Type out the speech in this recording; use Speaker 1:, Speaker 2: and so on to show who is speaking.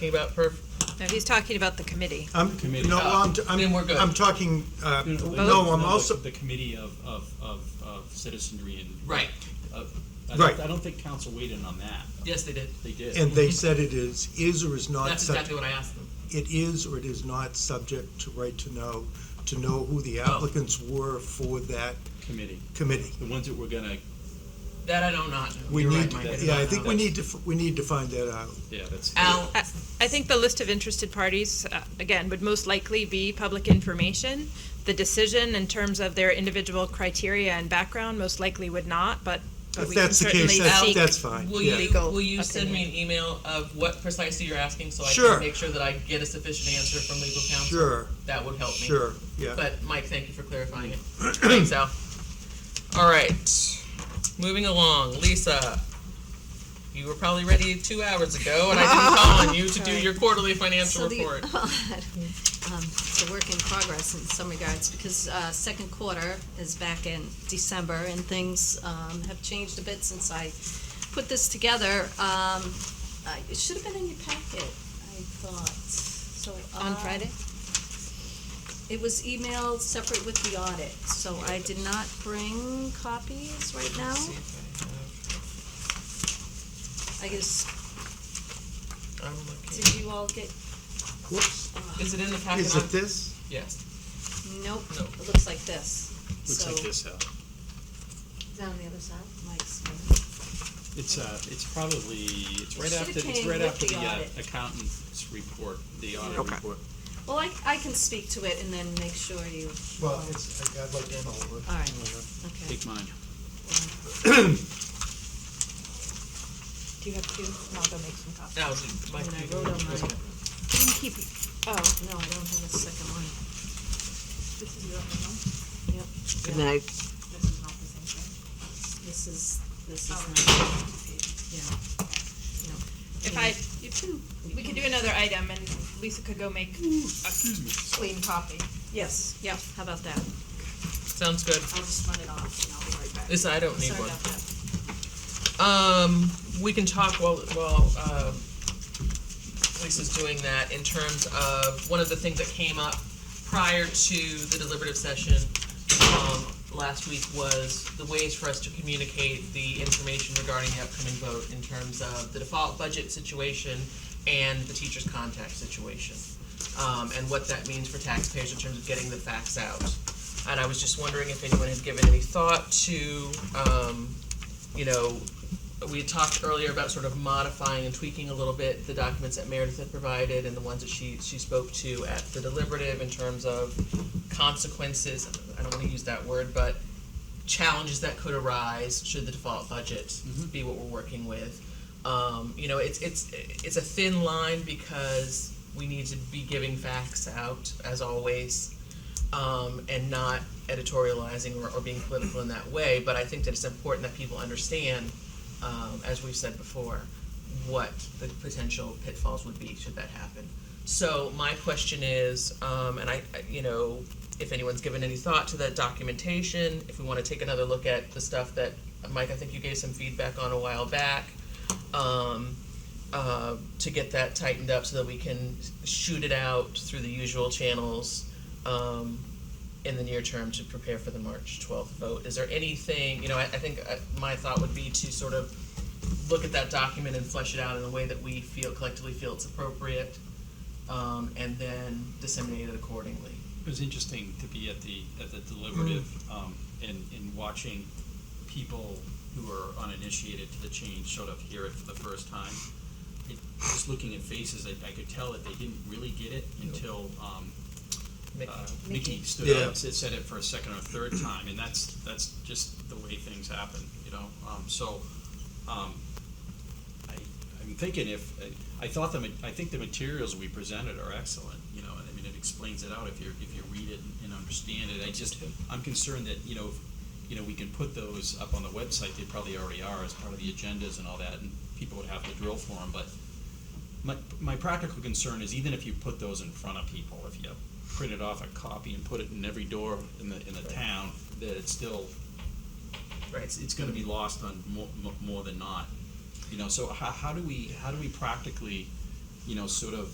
Speaker 1: talking about perf,
Speaker 2: No, he's talking about the committee.
Speaker 3: I'm,
Speaker 4: Committee.
Speaker 3: no, I'm,
Speaker 1: Then
Speaker 3: I'm,
Speaker 1: we're good.
Speaker 3: I'm talking, uh,
Speaker 4: No, no,
Speaker 3: no, I'm
Speaker 4: the-
Speaker 3: also,
Speaker 4: The committee of, of, of, of citizenry and.
Speaker 1: Right.
Speaker 4: of- I
Speaker 3: Right.
Speaker 4: don't, I don't think council weighed in on that.
Speaker 1: yes, they did.
Speaker 4: They did.
Speaker 3: and they said it is, is or is not
Speaker 1: That's
Speaker 3: subject,
Speaker 1: exactly what I asked them.
Speaker 3: it is or it is not subject to right to know, to know who
Speaker 1: Oh.
Speaker 3: the applicants were for that
Speaker 4: Committee,
Speaker 3: committee.
Speaker 4: the ones that were gonna,
Speaker 1: That I don't not know.
Speaker 3: We
Speaker 1: You're right,
Speaker 3: need,
Speaker 1: Mike, do
Speaker 3: yeah,
Speaker 1: not
Speaker 3: I
Speaker 1: know
Speaker 3: think we
Speaker 1: that.
Speaker 3: need to, f- we need to find that out.
Speaker 4: yeah, that's.
Speaker 1: Al,
Speaker 2: I I think the list of interested parties, uh, again, would most likely be public information. The decision in terms of their individual criteria and background most likely would not, but but
Speaker 3: If
Speaker 2: we can
Speaker 3: that's the case,
Speaker 2: certainly
Speaker 3: that's,
Speaker 2: seek.
Speaker 3: that's fine,
Speaker 1: will
Speaker 3: yeah.
Speaker 1: you,
Speaker 2: Legal
Speaker 1: will you send me an
Speaker 2: opinion.
Speaker 1: email of what precisely you're asking so I
Speaker 3: Sure.
Speaker 1: can make sure that I get a sufficient answer from legal counsel?
Speaker 3: Sure,
Speaker 1: That would help me.
Speaker 3: sure, yeah.
Speaker 1: But Mike, thank you for clarifying it. Thanks, Al. All right, moving along. Lisa, you were probably ready two hours ago, and I didn't call on you to do your quarterly financial
Speaker 5: So the-
Speaker 1: report.
Speaker 5: Um, It's a work in progress in some regards, because uh, second quarter is back in December, and things um, have changed a bit since I put this together. Um, I- It should have been in your packet, I thought, so.
Speaker 6: On
Speaker 5: uh,
Speaker 6: Friday?
Speaker 5: It was emailed separate with the audit, so I did not bring copies right now.
Speaker 1: See if
Speaker 5: I guess,
Speaker 1: I have- I'm looking.
Speaker 5: did you all get, uh,
Speaker 3: Whoops,
Speaker 1: Is it in the packet?
Speaker 3: is it this?
Speaker 1: Yes.
Speaker 5: nope,
Speaker 1: No.
Speaker 5: it looks like this.
Speaker 4: Looks like this, Al.
Speaker 6: Is that on the other side?
Speaker 5: So Mike's.
Speaker 4: It's, uh, it's probably, it's right
Speaker 5: should've
Speaker 4: after, it's
Speaker 5: came
Speaker 4: right
Speaker 5: with
Speaker 4: after
Speaker 5: the
Speaker 4: the uh,
Speaker 5: audit.
Speaker 4: accountant's report, the audit
Speaker 3: Okay.
Speaker 4: report.
Speaker 5: Well, I, I can speak to it and then make sure you.
Speaker 3: Well, it's, I'd like to know.
Speaker 5: All right. Okay.
Speaker 4: Take mine.
Speaker 6: Do you have two? And I'll go make some coffee.
Speaker 1: That was Mike.
Speaker 5: And I
Speaker 1: you-
Speaker 5: wrote on
Speaker 1: was
Speaker 5: mine.
Speaker 1: it?
Speaker 6: You can keep it. Oh,
Speaker 5: No, I don't have a second one.
Speaker 6: this is your other one?
Speaker 5: Yep.
Speaker 7: Good night.
Speaker 6: This is not the same thing?
Speaker 5: This is, this is
Speaker 6: Oh.
Speaker 5: not, yeah.
Speaker 2: If I,
Speaker 5: You can.
Speaker 2: we could do another item and Lisa could go make a clean coffee.
Speaker 5: Yes, yeah, how about that?
Speaker 1: Sounds good.
Speaker 5: I'll just run it off and I'll be right back.
Speaker 1: Lisa, I don't need
Speaker 5: Sorry
Speaker 1: one.
Speaker 5: about that.
Speaker 1: Um, we can talk while, while, um, Lisa's doing that in terms of, one of the things that came up prior to the deliberative session, um, last week was the ways for us to communicate the information regarding the upcoming vote in terms of the default budget situation and the teacher's contact situation, um, and what that means for taxpayers in terms of getting the facts out. And I was just wondering if anyone had given any thought to, um, you know, we had talked earlier about sort of modifying and tweaking a little bit the documents that Meredith had provided and the ones that she, she spoke to at the deliberative in terms of consequences, I don't wanna use that word, but challenges that could arise should the default budget be what we're working with. Um, you know, it's, it's, it's a thin line because we need to be giving facts out as always um, and not editorializing or, or being political in that way. But I think that it's important that people understand, um, as we've said before, what the potential pitfalls would be should that happen. So my question is, um, and I, I- you know, if anyone's given any thought to that documentation, if we want to take another look at the stuff that Mike, I think you gave some feedback on a while back. Um, uh, to get that tightened up so that we can shoot it out through the usual channels um, in the near term to prepare for the March 12th vote. Is there anything, you know, I, I think uh, my thought would be to sort of look at that document and flesh it out in a way that we feel collectively feel it's appropriate um, and then disseminate it accordingly.
Speaker 4: It was interesting to be at the, at the deliberative, um, and, and watching people who are uninitiated to the change sort of hear it for the first time. It- Just looking at faces, I, I could tell that they didn't really get it until, um,
Speaker 1: Mick,
Speaker 4: uh, Mickey stood
Speaker 3: Yeah.
Speaker 4: up and said- said it for a second or third time, and that's, that's just the way things happen, you know? Um, so, um, I, I'm thinking if, I thought the, ma- I think the materials we presented are excellent, you know, and I mean, it explains it out if you, if you read it and understand it. I just, I'm concerned that, you know, if- you know, we can put those up on the website, they probably already are as part of the agendas and all that, and people would have to drill for them, but my, my practical concern is even if you put those in front of people, if you printed off a copy and put it in every door in the, in the town, that it's still,
Speaker 1: right?
Speaker 4: it's, it's gonna be lost on more, more than not. You know, so how, how do we, how do we practically you know, sort of